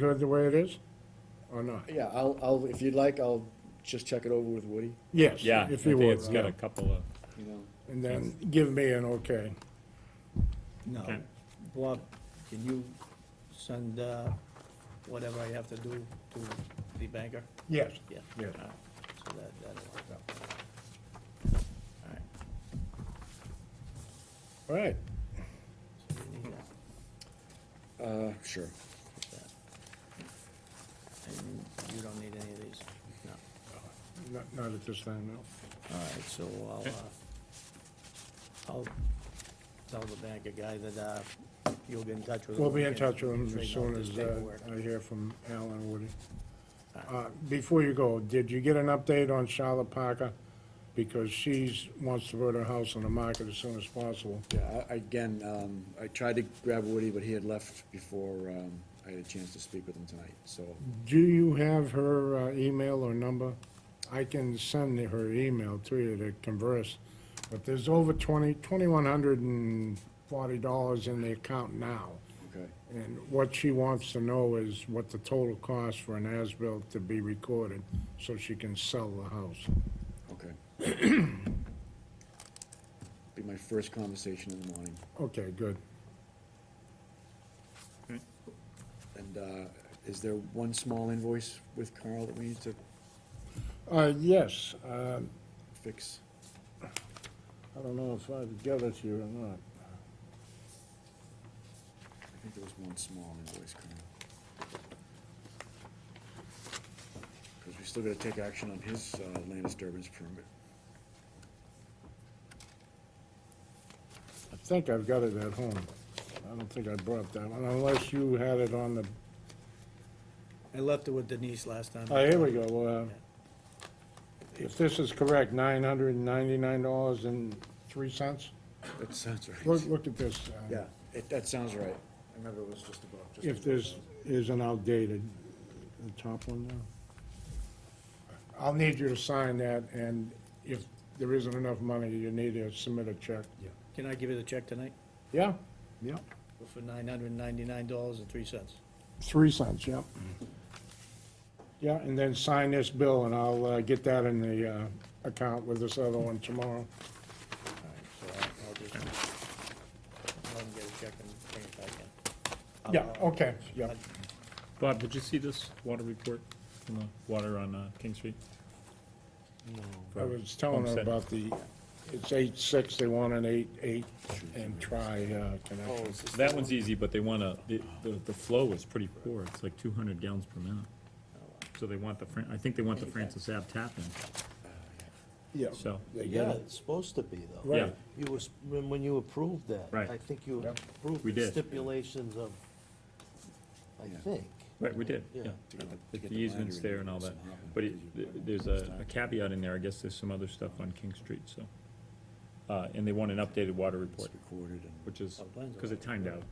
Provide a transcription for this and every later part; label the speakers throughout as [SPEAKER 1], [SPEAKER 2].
[SPEAKER 1] good the way it is, or not?
[SPEAKER 2] Yeah, I'll, I'll, if you'd like, I'll just check it over with Woody,
[SPEAKER 1] Yes,
[SPEAKER 3] Yeah, I
[SPEAKER 1] if you
[SPEAKER 3] think
[SPEAKER 1] would,
[SPEAKER 3] it's got a couple of,
[SPEAKER 2] you know.
[SPEAKER 1] and then give me an okay.
[SPEAKER 4] No.
[SPEAKER 3] Okay.
[SPEAKER 4] Bob, can you send uh, whatever I have to do to the banker?
[SPEAKER 1] Yes,
[SPEAKER 4] Yeah.
[SPEAKER 1] Yes.
[SPEAKER 4] All right. So that, that'll work out. All right.
[SPEAKER 1] all right.
[SPEAKER 4] So you need that,
[SPEAKER 2] Uh, sure.
[SPEAKER 4] just that. And you don't need any of these? No.
[SPEAKER 1] Not, not at this time, no.
[SPEAKER 4] All right, so I'll, uh, I'll tell the banker guy that uh, you'll get in touch with him.
[SPEAKER 1] We'll be in
[SPEAKER 4] and
[SPEAKER 1] touch with him as
[SPEAKER 4] straighten out
[SPEAKER 1] soon
[SPEAKER 4] this
[SPEAKER 1] as uh,
[SPEAKER 4] paperwork.
[SPEAKER 1] I hear from Al and Woody.
[SPEAKER 4] All right.
[SPEAKER 1] Uh, Before you go, did you get an update on Charlotte Parker? Because she's, wants to put her house on the market as soon as possible.
[SPEAKER 2] Yeah, I- again, um, I tried to grab Woody, but he had left before, um, I had a chance to speak with him tonight, so,
[SPEAKER 1] Do you have her uh, email or number? I can send her email to you to converse, but there's over twenty, twenty-one hundred and forty dollars in the account now.
[SPEAKER 2] okay.
[SPEAKER 1] And what she wants to know is what the total cost for an as-built to be recorded, so she can sell the house.
[SPEAKER 2] Okay. Be my first conversation in the morning,
[SPEAKER 1] Okay, good.
[SPEAKER 2] and, uh, is there one small invoice with Carl that we need to
[SPEAKER 1] Uh, yes, uh,
[SPEAKER 2] fix?
[SPEAKER 1] I don't know if I've got it here or not.
[SPEAKER 2] I think there was one small invoice, Carl. Cause we still gotta take action on his, uh, land disturbance permit.
[SPEAKER 1] I think I've got it at home. I don't think I brought that one, unless you had it on the
[SPEAKER 4] I left it with Denise last time.
[SPEAKER 1] Oh, here we go. uh, If this is correct, nine hundred and ninety-nine dollars and three cents?
[SPEAKER 2] That sounds right.
[SPEAKER 1] Look, look at this. uh,
[SPEAKER 2] Yeah, it, that sounds right. I remember it was just about, just.
[SPEAKER 1] If this isn't outdated, the top one there. I'll need you to sign that, and if there isn't enough money, you need to submit a check.
[SPEAKER 4] Can I give you the check tonight
[SPEAKER 1] Yeah? Yeah.
[SPEAKER 4] for nine hundred and ninety-nine dollars and three cents?
[SPEAKER 1] Three cents, yeah. Yeah, and then sign this bill, and I'll uh, get that in the uh, account with this other one tomorrow.
[SPEAKER 4] All right, so I'll, I'll just, I'll get a check and bring it back in.
[SPEAKER 1] Yeah, okay, yeah.
[SPEAKER 3] Bob, did you see this water report from the water on uh, King Street?
[SPEAKER 1] I was telling her
[SPEAKER 3] Homestead.
[SPEAKER 1] about the, it's eight six, they want an eight eight and try uh, connection.
[SPEAKER 3] That one's easy, but they wanna, the, the- the flow is pretty poor, it's like two hundred gallons per minute. So they want the, Fran- I think they want the Francis Ave tap in,
[SPEAKER 1] Yeah,
[SPEAKER 3] so,
[SPEAKER 1] they get
[SPEAKER 5] Yeah,
[SPEAKER 1] it.
[SPEAKER 5] it's supposed to be, though.
[SPEAKER 3] yeah,
[SPEAKER 1] Right.
[SPEAKER 5] You was, when when you approved that.
[SPEAKER 3] Right.
[SPEAKER 5] I think you
[SPEAKER 1] Yep.
[SPEAKER 5] approved
[SPEAKER 3] We
[SPEAKER 5] the
[SPEAKER 3] did.
[SPEAKER 5] stipulations of, I
[SPEAKER 2] Yeah.
[SPEAKER 5] think.
[SPEAKER 3] right, we did, yeah.
[SPEAKER 5] Yeah.
[SPEAKER 2] To get the- to get
[SPEAKER 3] The
[SPEAKER 2] the
[SPEAKER 3] easement's
[SPEAKER 2] binder in
[SPEAKER 3] there and all that,
[SPEAKER 2] somehow.
[SPEAKER 3] but it- th- there's a a caveat in there, I guess there's some other stuff on King Street, so. Uh, and they want an updated water
[SPEAKER 2] It's
[SPEAKER 3] report,
[SPEAKER 2] recorded and,
[SPEAKER 3] which is, cause it timed out,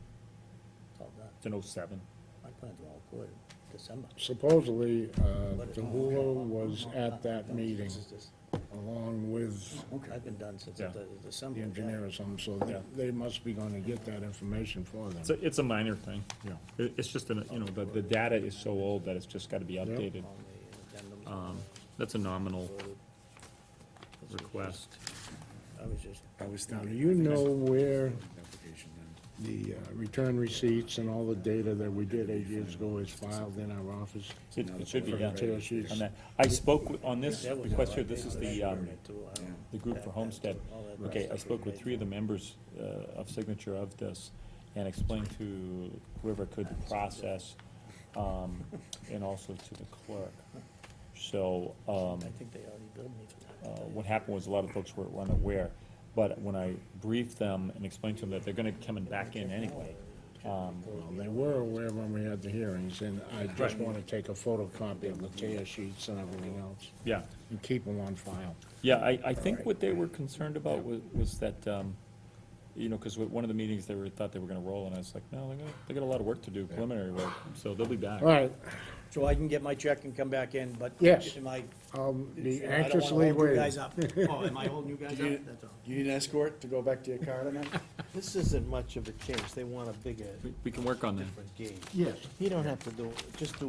[SPEAKER 4] It's all done.
[SPEAKER 3] it's an oh oh-seven.
[SPEAKER 4] My plans are all good, December.
[SPEAKER 1] Supposedly, uh, DeHulo was at that meeting
[SPEAKER 4] This is just-
[SPEAKER 1] along with
[SPEAKER 4] I've been done since
[SPEAKER 3] Yeah.
[SPEAKER 4] the December.
[SPEAKER 1] the engineer or something, so
[SPEAKER 3] Yeah.
[SPEAKER 1] they- they must be gonna get that information for
[SPEAKER 3] It's a,
[SPEAKER 1] them.
[SPEAKER 3] it's a minor thing.
[SPEAKER 1] Yeah.
[SPEAKER 3] It, it's just, an- you know, the, the data is so old that it's just gotta be updated.
[SPEAKER 4] On the addendums.
[SPEAKER 3] Um, that's a nominal request.
[SPEAKER 4] I was just,
[SPEAKER 2] I was
[SPEAKER 1] Now, do
[SPEAKER 2] thinking.
[SPEAKER 1] you know where
[SPEAKER 2] Application then.
[SPEAKER 1] the uh, return receipts and all the data that we did eight years ago is filed in our office?
[SPEAKER 3] It, it should be,
[SPEAKER 1] For
[SPEAKER 3] yeah.
[SPEAKER 1] the tear sheets?
[SPEAKER 3] On that, I spoke with- on this
[SPEAKER 4] that was.
[SPEAKER 3] request
[SPEAKER 4] all
[SPEAKER 3] here,
[SPEAKER 4] I
[SPEAKER 3] this
[SPEAKER 4] did.
[SPEAKER 3] is
[SPEAKER 4] I
[SPEAKER 3] the,
[SPEAKER 4] shared
[SPEAKER 3] um,
[SPEAKER 4] it too. I
[SPEAKER 2] yeah.
[SPEAKER 3] the group for
[SPEAKER 4] That-
[SPEAKER 3] Homestead.
[SPEAKER 4] that's all that
[SPEAKER 3] Okay, I
[SPEAKER 4] stuff
[SPEAKER 3] spoke
[SPEAKER 4] was
[SPEAKER 3] with
[SPEAKER 4] made
[SPEAKER 3] three of the members, uh, of signature of this and explained to whoever could the process, um, and also to the clerk. So, um,
[SPEAKER 4] I think they already billed me for that.
[SPEAKER 3] uh, what happened was a lot of folks were were unaware, but when I briefed them and explained to them that they're gonna come and back in anyway, um,
[SPEAKER 1] Well, they were aware when we had the hearings, and I just wanna take a photocopy of the tear sheets and everything else.
[SPEAKER 3] yeah.
[SPEAKER 1] and keep them on file.
[SPEAKER 3] Yeah, I, I think what they were concerned about was, was that, um, you know, cause with one of the meetings, they were, thought they were gonna roll, and I was like, no, they got, they got a lot of work to do, preliminary work, so they'll be back.
[SPEAKER 1] All right,
[SPEAKER 4] So I can get my check and come back in, but.
[SPEAKER 1] Yes.
[SPEAKER 4] Am I?
[SPEAKER 1] I'll be
[SPEAKER 4] I don't wanna
[SPEAKER 1] anxiously
[SPEAKER 4] hold you
[SPEAKER 1] waiting.
[SPEAKER 4] guys up. Oh, am I holding you guys up? That's all.
[SPEAKER 2] You need an escort to go back to your car tonight?
[SPEAKER 5] This isn't much of a change, they want a bigger,
[SPEAKER 3] We can work on that.
[SPEAKER 5] different gauge.
[SPEAKER 1] Yes.
[SPEAKER 5] You don't have to do, just do